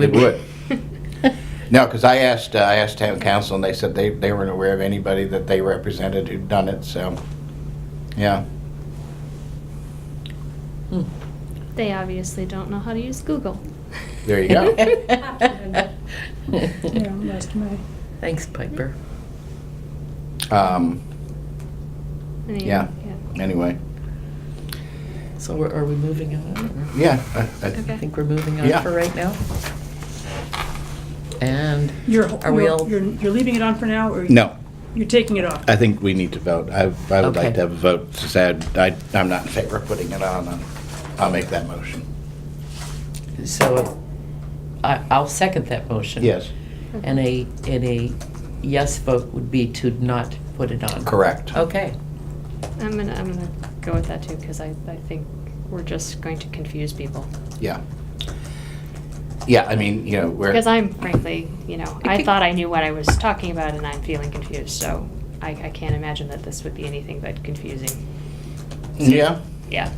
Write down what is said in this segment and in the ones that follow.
It would. No, because I asked, uh, I asked town council, and they said they, they weren't aware of anybody that they represented who'd done it, so, yeah. They obviously don't know how to use Google. There you go. Yeah, last May. Thanks, Piper. Um, I mean, Yeah. Anyway, So we're- are we moving on? or- yeah. I- I- I Okay. think we're moving Yeah. on for right now. And You're, Are we all- you're, you're you're leaving it on for now, or? No, You're taking it off? I think we need to vote. I, I would like Okay. to have a vote, to say I, I'm not in favor of putting it on. I'll- I'll make that motion. so I- I'll second that motion. Yes, And a, and a yes vote would be to not put it on. correct. Okay. I'm gonna, I'm gonna go with that too, because I, I think we're just going to confuse people. Yeah. Yeah, I mean, you know, we're. Because I'm frankly, you know, I Okay. thought I knew what I was talking about and I'm feeling confused, so I, I can't imagine that this would be anything but confusing. Yeah, Yeah,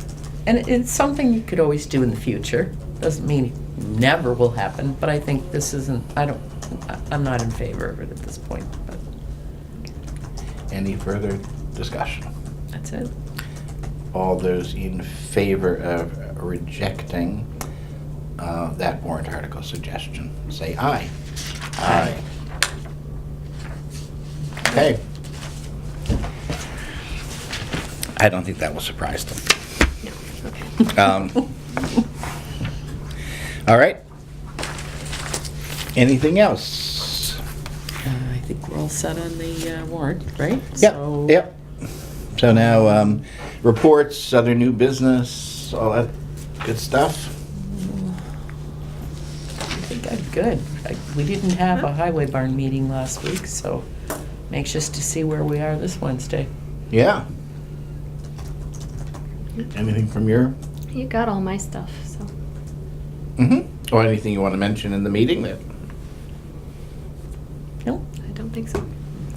And it- it's something you could always do in the future. Doesn't mean it never will happen, but I think this isn't, I don't, I- I'm not in favor of it at this point, but any further discussion? that's it. All those in favor of rejecting uh, that warrant article suggestion, say aye. Aye. Okay. I don't think that will surprise them. no, okay. Um, All right. Anything else? Uh, I think we're all set on the uh, warrant, right? So- Yep, yep. So now, um, reports, other new business, all that good stuff? I think I'm good. I- We didn't have a highway barn meeting last week, so I'm anxious to see where we are this Wednesday. Yeah. Anything from your, You got all my stuff, so. mm-hmm, or anything you want to mention in the meeting that, Nope. I don't think so.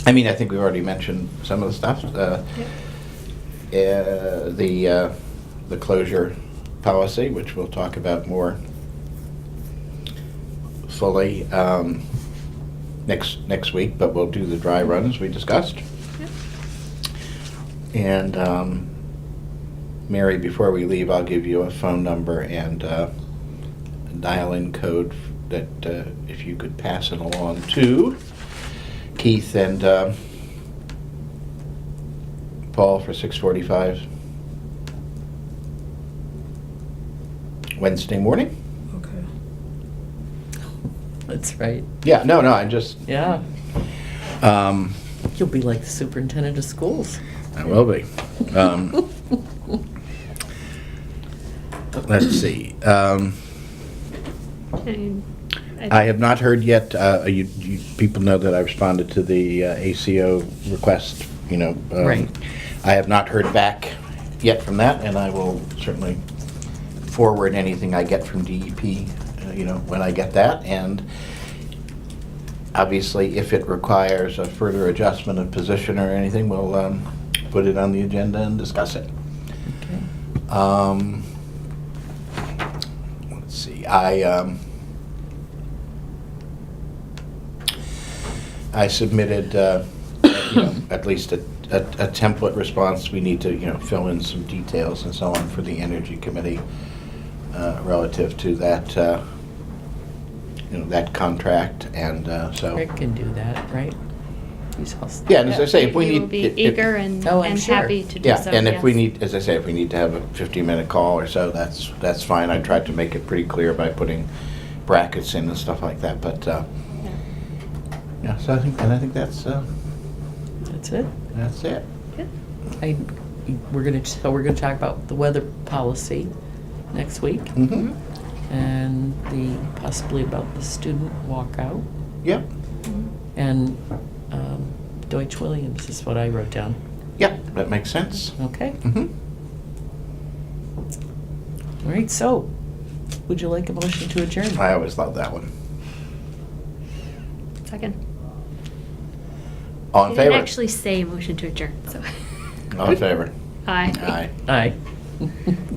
I mean, I think we've already mentioned some of the stuff. uh, Yep. uh, The, uh, the closure policy, which we'll talk about more fully um, next, next week, but we'll do the dry run as we discussed. Yep. And um, Mary, before we leave, I'll give you a phone number and uh, dial-in code that uh, if you could pass it along to Keith and uh, Paul for 6:45 Wednesday morning. Okay. That's right. Yeah, no, no, I just. Yeah. Um, You'll be like the superintendent of schools. I will be. Um, let's see. Um, And I have not heard yet, uh, you, you, people know that I responded to the uh, ACO request, you know. um, Right. I have not heard back yet from that, and I will certainly forward anything I get from DEP, uh, you know, when I get that. And obviously, if it requires a further adjustment of position or anything, we'll, um, put it on the agenda and discuss it. Okay. Um, let's see, I, um, I submitted, uh, you know, at least a, a a template response. We need to, you know, fill in some details and so on for the Energy Committee uh, relative to that, uh, you know, that contract and, uh, so. Rick can do that, right? He's all set. Yeah, and as I say, if we You need. will be if- if- eager and, Oh, I'm and sure. happy to do yeah, so, and if we yes. need, as I say, if we need to have a 15-minute call or so, that's, that's fine. I tried to make it pretty clear by putting brackets in and stuff like that, but, uh, Yeah. yeah, so I think, and I think that's, uh, That's it. that's it. Good. I, we're gonna, so we're gonna talk about the weather policy next week Mm-hmm, and the, possibly about the student walkout. yep, Mm-hmm. And um, Deutsch Williams is what I wrote down. yep, that makes sense. Okay. Mm-hmm. All right. So, would you like a motion to adjourn? I always love that one. Second. All in I didn't favor? actually say motion to adjourn, so. All in favor? Aye. Aye. Aye.